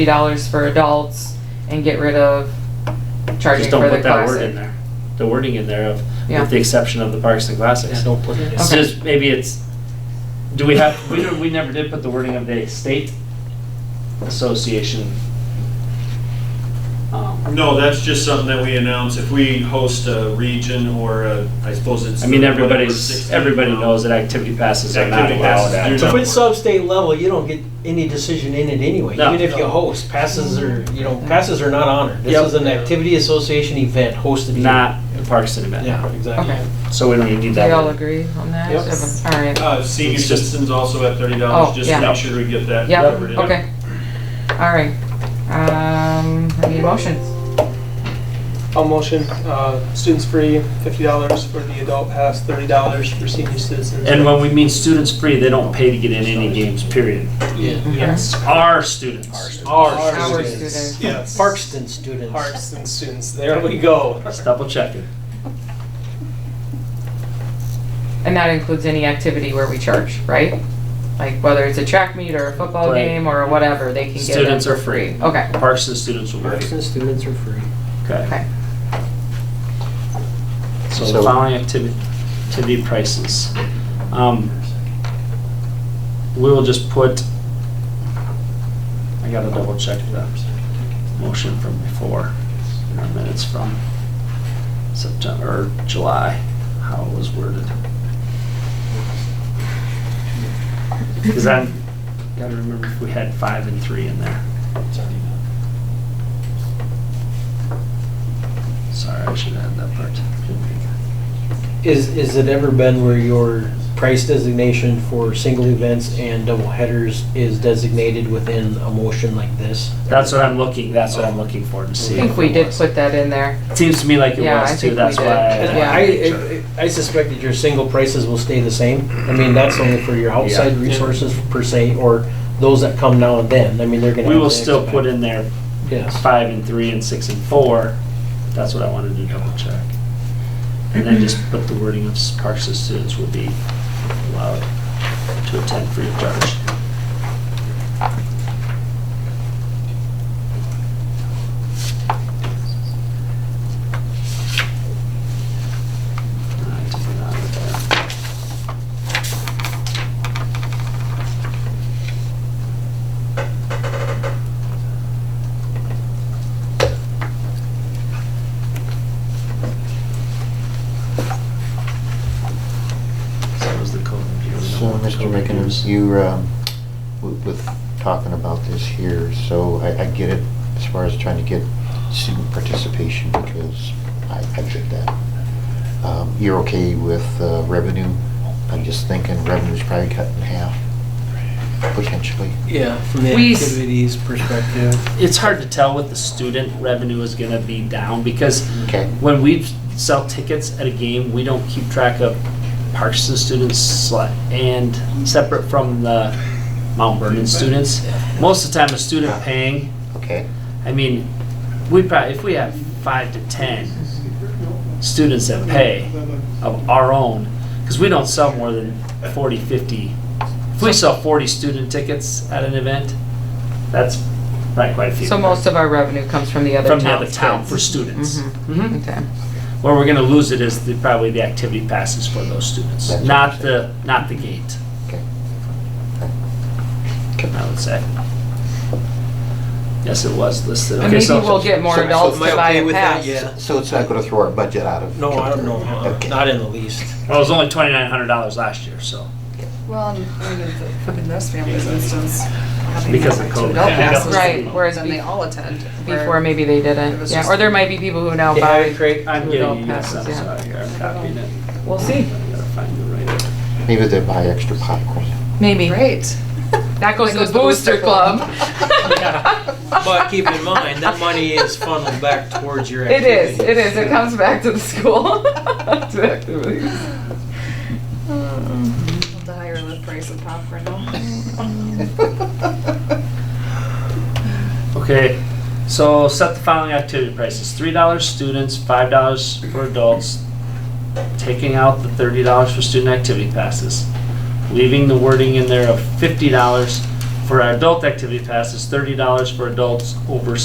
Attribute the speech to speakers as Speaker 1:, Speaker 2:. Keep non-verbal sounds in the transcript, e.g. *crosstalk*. Speaker 1: dollars for adults and get rid of charging
Speaker 2: Just don't
Speaker 1: for the
Speaker 2: put that word in
Speaker 1: classic.
Speaker 2: there, the wording in there of,
Speaker 1: Yeah.
Speaker 2: with the exception of the parks and
Speaker 3: Yeah,
Speaker 2: classics.
Speaker 3: don't put it in.
Speaker 2: It's
Speaker 1: Okay.
Speaker 2: just, maybe it's, do we have, we, don't- we never did put the wording of the state association. Um,
Speaker 4: No, that's just something that we announce if we host a region or a, I suppose it's.
Speaker 2: I mean,
Speaker 4: the- whatever,
Speaker 2: everybody's,
Speaker 4: 16
Speaker 2: everybody knows that activity passes are not
Speaker 4: Activity
Speaker 2: allowed
Speaker 4: passes do
Speaker 2: at.
Speaker 3: So if it's sub-state level, you don't get any decision in it anyway,
Speaker 2: No.
Speaker 3: even if you host, passes are, you know, passes are not honored. This
Speaker 2: Yep.
Speaker 3: is an activity association event hosted. here.
Speaker 2: Not the parks and event,
Speaker 3: Yeah, exactly.
Speaker 1: Okay.
Speaker 2: so we don't even need
Speaker 1: Do we
Speaker 2: that
Speaker 1: all
Speaker 2: word.
Speaker 1: agree on that?
Speaker 3: Yep.
Speaker 1: Everyone- All right.
Speaker 4: Uh, senior
Speaker 2: It's just-
Speaker 4: citizens also at thirty
Speaker 1: Oh,
Speaker 4: dollars, just
Speaker 1: yeah.
Speaker 4: to make sure we get that
Speaker 1: Yep,
Speaker 4: covered in.
Speaker 1: okay. All right. Um, I need motions.
Speaker 5: I'll motion, uh, students free, fifty dollars for the adult pass, thirty dollars for senior citizens.
Speaker 2: And when we mean students free, they don't pay to get in any games, period.
Speaker 3: Yes.
Speaker 1: Mm-hmm.
Speaker 2: Our students.
Speaker 3: Our
Speaker 1: Our
Speaker 3: students.
Speaker 1: students.
Speaker 5: Yes.
Speaker 3: Parkston students.
Speaker 5: Parks and students, there we go.
Speaker 2: Just double checking.
Speaker 1: And that includes any activity where we charge, right? Like whether it's a track meet or a football
Speaker 2: Right.
Speaker 1: game or whatever, they can get in
Speaker 2: Students
Speaker 1: for
Speaker 2: are free.
Speaker 1: Okay,
Speaker 2: Parks and students will be.
Speaker 3: Parkston students are free.
Speaker 2: Okay.
Speaker 1: okay.
Speaker 2: So
Speaker 6: So-
Speaker 2: the following activity, activity prices. Um, We will just put, I gotta double check the motion from before, in our minutes from September, or July, how it was worded. Cause I gotta remember if we had five and three in there. Sorry, I should have had that part.
Speaker 3: Is, is it ever been where your price designation for single events and double headers is designated within a motion like this?
Speaker 2: That's what I'm looking, that's what I'm looking for to
Speaker 1: I
Speaker 2: see.
Speaker 1: think
Speaker 2: if
Speaker 1: we
Speaker 2: it
Speaker 1: did
Speaker 2: was.
Speaker 1: put that in there.
Speaker 2: Seems to me like it
Speaker 1: Yeah, I
Speaker 2: was
Speaker 1: think
Speaker 2: too,
Speaker 1: we
Speaker 2: that's
Speaker 1: did.
Speaker 2: why.
Speaker 3: And
Speaker 1: Yeah.
Speaker 3: I, I I suspect that your single prices will stay the same. I mean, that's only for your outside resources per se, or those that come now and then. I mean, they're gonna.
Speaker 2: We
Speaker 3: have
Speaker 2: will
Speaker 3: to
Speaker 2: still
Speaker 3: expect-
Speaker 2: put in there
Speaker 3: Yes.
Speaker 2: five and three and six and four. That's what I wanted to double check. And then just put the wording of parks and students will be allowed to attend free of charge. I took it out of there. So that was the code review.
Speaker 6: So, Mr. Mickens, you, um, w- with talking about this here, so I, I get it as far as trying to get student participation, because I, I get that. Um, You're okay with uh, revenue? I'm just thinking revenue's probably cut in half, potentially.
Speaker 3: Yeah, from the
Speaker 1: We s-
Speaker 3: activities perspective.
Speaker 2: It's hard to tell what the student revenue is gonna be down, because
Speaker 6: Okay.
Speaker 2: when we sell tickets at a game, we don't keep track of parks and students sli- and separate from the Mount Vernon students. Most of the time, a student paying,
Speaker 6: Okay,
Speaker 2: I mean, we probably, if we have five to 10 students that pay of our own, because we don't sell more than 40, 50. If we sell 40 student tickets at an event, that's not quite a few.
Speaker 1: So most of our revenue comes from the other
Speaker 2: From
Speaker 1: towns. Mm-hmm.
Speaker 2: the other town for students. Mhm.
Speaker 1: Okay.
Speaker 2: Where we're gonna lose it is the, probably the activity passes for those students,
Speaker 6: That's
Speaker 2: not
Speaker 6: what
Speaker 2: the, not the gate.
Speaker 6: Okay.
Speaker 2: I would say. Yes, it was listed.
Speaker 1: And
Speaker 2: Okay,
Speaker 1: maybe
Speaker 2: so-
Speaker 1: we'll get more
Speaker 6: so- so
Speaker 1: adults
Speaker 3: am I
Speaker 1: to buy
Speaker 3: okay
Speaker 1: a
Speaker 3: with that?
Speaker 1: pass.
Speaker 3: Yeah.
Speaker 6: so it's not gonna throw our budget out of.
Speaker 3: No, I don't know, uh,
Speaker 6: Okay.
Speaker 3: not in the
Speaker 1: *laughs*
Speaker 3: least.
Speaker 2: Well, it was only twenty-nine hundred dollars last year, so.
Speaker 7: Well, and for the- for the nurse families, for instance, having
Speaker 2: Because of
Speaker 7: like
Speaker 2: COVID.
Speaker 7: two adult
Speaker 2: Yeah.
Speaker 7: passes,
Speaker 1: Right, whereas
Speaker 7: then
Speaker 1: be-
Speaker 7: they all attend. where-
Speaker 1: Before maybe they
Speaker 7: It
Speaker 1: didn't,
Speaker 7: was
Speaker 1: yeah,
Speaker 7: just-
Speaker 1: or there might be people who now buy.
Speaker 3: Craig.
Speaker 2: I'm
Speaker 1: It all
Speaker 2: getting you, I'm
Speaker 1: passes, yeah.
Speaker 2: sorry, here, I'm copying it.
Speaker 1: We'll see,
Speaker 2: I gotta find the right.
Speaker 6: Maybe they buy extra popcorn.
Speaker 1: maybe.
Speaker 7: Great.
Speaker 1: That goes
Speaker 7: That
Speaker 1: to the
Speaker 7: goes to
Speaker 1: Booster
Speaker 7: the Booster
Speaker 1: Club.
Speaker 3: But keep in mind, that money is funneled back towards
Speaker 1: *laughs*
Speaker 3: your
Speaker 1: It
Speaker 3: activities.
Speaker 1: is, it is, it comes back to the school. *laughs* To activities.
Speaker 7: The higher the price of popcorn,
Speaker 2: Okay, so set the following activity prices, three dollars students, five dollars for adults, taking out the thirty dollars for student activity passes, leaving the wording in there of fifty dollars for our adult activity pass, it's thirty dollars for adults over